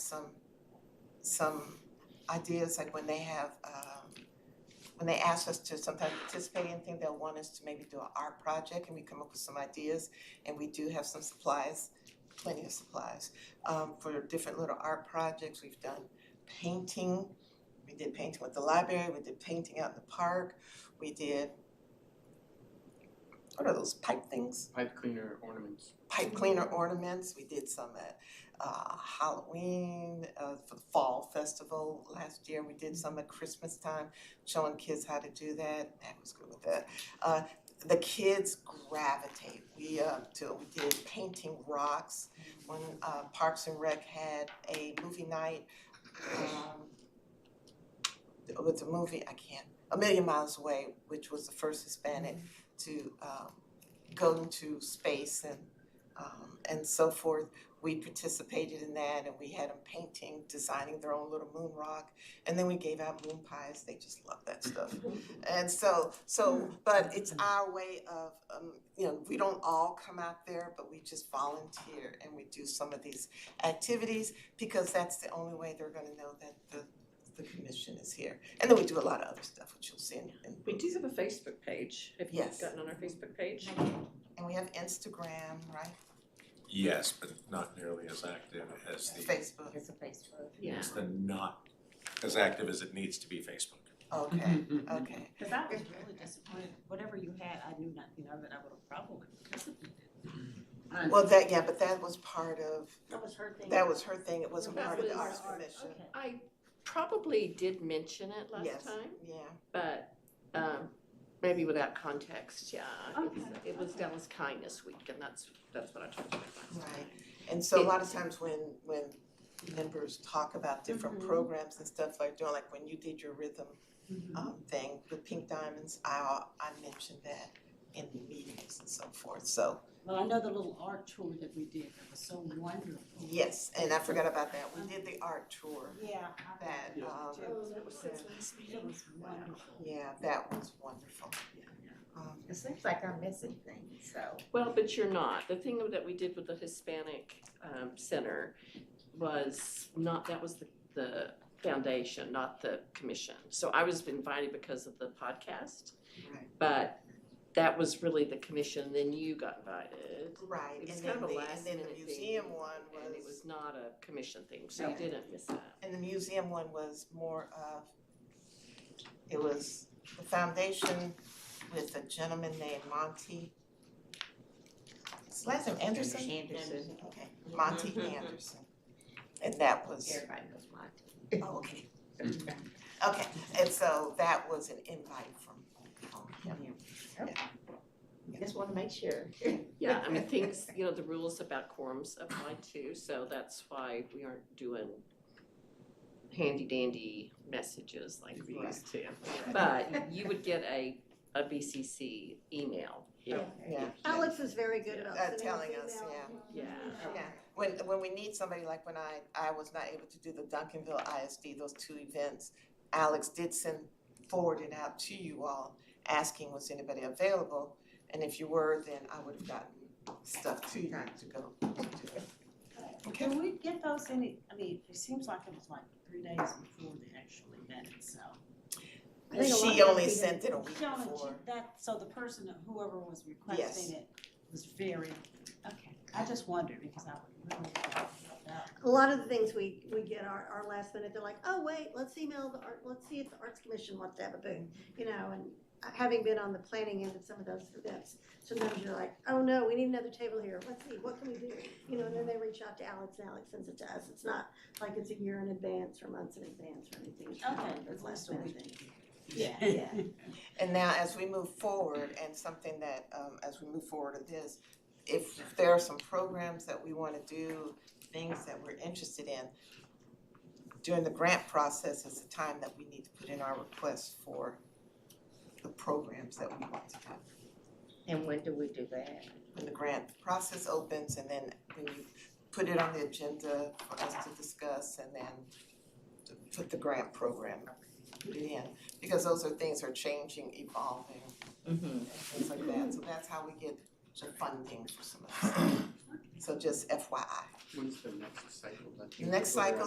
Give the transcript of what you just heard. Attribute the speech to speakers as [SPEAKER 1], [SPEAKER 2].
[SPEAKER 1] some, some ideas, like when they have, um, when they ask us to sometimes participate in things, they'll want us to maybe do an art project, and we come up with some ideas, and we do have some supplies, plenty of supplies, um, for different little art projects, we've done painting, we did painting with the library, we did painting out in the park, we did, what are those pipe things?
[SPEAKER 2] pipe cleaner ornaments.
[SPEAKER 1] pipe cleaner ornaments. We did some at uh, Halloween uh, for the fall festival last year. We did some at Christmas time, showing kids how to do that. That was good with that. Uh, the kids gravitate. We uh, do, we did painting rocks. When uh, Parks and Rec had a movie night um, with the movie, I can't, A Million Miles Away, which was the first Hispanic to um, go into space and um and so forth. We participated in that and we had them painting, designing their own little moon rock. And then we gave out moon pies, they just love that stuff. And so, so, but it's our way of, um, you know, we don't all come out there, but we just volunteer and we do some of these activities because that's the only way they're gonna know that the the commission is here. And then we do a lot of other stuff, which you'll see in in
[SPEAKER 3] We do have a Facebook page, if you've
[SPEAKER 1] Yes.
[SPEAKER 3] gotten on our Facebook page.
[SPEAKER 1] And we have Instagram, right,
[SPEAKER 4] Yes, but not nearly as active as the,
[SPEAKER 1] Facebook,
[SPEAKER 5] It's a place for it.
[SPEAKER 3] Yeah.
[SPEAKER 4] it's the not as active as it needs to be Facebook.
[SPEAKER 1] okay, okay.
[SPEAKER 5] Cause I was really disappointed, whatever you had, I knew nothing of it, I would have probably participated. I-
[SPEAKER 1] Well, that, yeah, but that was part of,
[SPEAKER 5] That was her thing.
[SPEAKER 1] that was her thing, it wasn't
[SPEAKER 3] That
[SPEAKER 1] part of the
[SPEAKER 3] was
[SPEAKER 1] Arts
[SPEAKER 5] art,
[SPEAKER 1] Commission,
[SPEAKER 5] okay.
[SPEAKER 3] I probably did mention it
[SPEAKER 1] Yes.
[SPEAKER 3] last time,
[SPEAKER 1] yeah.
[SPEAKER 3] but um maybe without context, yeah. it was-
[SPEAKER 5] Okay,
[SPEAKER 3] It was
[SPEAKER 5] okay.
[SPEAKER 3] Dallas Kindness Week and that's that's what I talked about last time.
[SPEAKER 1] Right, and so a lot of times when, when members talk about different
[SPEAKER 3] Mhm.
[SPEAKER 1] programs and stuff like doing, like when you did your rhythm
[SPEAKER 5] Uh,
[SPEAKER 1] um thing with Pink Diamonds, I, I mentioned that in the meetings and so forth, so,
[SPEAKER 5] Well, I know the little art tour that we did, that was so wonderful.
[SPEAKER 1] yes, and I forgot about that, we did the art tour,
[SPEAKER 5] Yeah. I-
[SPEAKER 1] that,
[SPEAKER 2] Yeah.
[SPEAKER 1] um,
[SPEAKER 3] that was
[SPEAKER 1] since
[SPEAKER 3] last
[SPEAKER 5] It was wonderful.
[SPEAKER 1] yeah, that was wonderful. Um,
[SPEAKER 6] It seems like I'm missing things, so.
[SPEAKER 3] Well, but you're not. The thing that we did with the Hispanic um center was not, that was the the foundation, not the commission. So I was invited because of the podcast.
[SPEAKER 1] Right.
[SPEAKER 3] But that was really the commission, then you got invited.
[SPEAKER 1] Right,
[SPEAKER 3] It
[SPEAKER 1] and
[SPEAKER 3] was
[SPEAKER 1] then
[SPEAKER 3] kind of a
[SPEAKER 1] the,
[SPEAKER 3] last
[SPEAKER 1] and then
[SPEAKER 3] minute
[SPEAKER 1] the
[SPEAKER 3] thing,
[SPEAKER 1] museum one
[SPEAKER 3] And it
[SPEAKER 1] was,
[SPEAKER 3] was not a commission thing, so you
[SPEAKER 5] Okay.
[SPEAKER 3] didn't miss that.
[SPEAKER 1] and the museum one was more of, it was the foundation with a gentleman named Monty. His last name Anderson?
[SPEAKER 6] Anderson.
[SPEAKER 1] Okay, Monty Anderson. And that was,
[SPEAKER 6] Everybody knows Monty.
[SPEAKER 1] oh, okay, okay, and so that was an invite from from him.
[SPEAKER 6] Just wanna make sure.
[SPEAKER 3] Yeah, I mean, things, you know, the rules about quorums apply too, so that's why we aren't doing handy dandy messages like we used to. But you would get a, a BCC email,
[SPEAKER 1] Yeah,
[SPEAKER 7] Alex is very good about
[SPEAKER 1] Uh,
[SPEAKER 7] sending
[SPEAKER 1] telling
[SPEAKER 7] us
[SPEAKER 1] us,
[SPEAKER 7] email.
[SPEAKER 1] yeah.
[SPEAKER 3] yeah.
[SPEAKER 6] Oh.
[SPEAKER 1] Yeah, when, when we need somebody, like when I, I was not able to do the Duncanville ISD, those two events, Alex did send, forward it out to you all, asking was anybody available? And if you were, then I would have gotten stuff to you to go to it. Okay,
[SPEAKER 5] Can we get those any, I mean, it seems like it was like three days before the actual event itself. I think a lot
[SPEAKER 1] she
[SPEAKER 5] of
[SPEAKER 1] only
[SPEAKER 5] people-
[SPEAKER 1] sent it a week
[SPEAKER 5] Shona,
[SPEAKER 1] before.
[SPEAKER 5] she- that, so the person, that- whoever was requesting it was very, okay, I just wondered because I would really love that.
[SPEAKER 7] A lot of the things we, we get our, our last minute, they're like, oh, wait, let's email the art, let's see if the Arts Commission wants to have a booth, you know, and uh, having been on the planning end of some of those events, sometimes you're like, oh, no, we need another table here, let's see, what can we do? You know, and then they reach out to Alex, and Alex sends it to us, it's not like it's a year in advance or months in advance or anything, it's just one of those last minute things. Yeah, yeah.
[SPEAKER 1] And now, as we move forward, and something that, um, as we move forward in this, if there are some programs that we wanna do, things that we're interested in, during the grant process is the time that we need to put in our requests for the programs that we want to do.
[SPEAKER 6] And when do we do that?
[SPEAKER 1] When the grant process opens, and then when you put it on the agenda for us to discuss, and then to put the grant program in, because those are things are changing, evolving
[SPEAKER 6] Mm-hmm.
[SPEAKER 1] things like that, so that's how we get the funding for some of this. So just FYI.
[SPEAKER 2] When's the next cycle?
[SPEAKER 1] The next cycle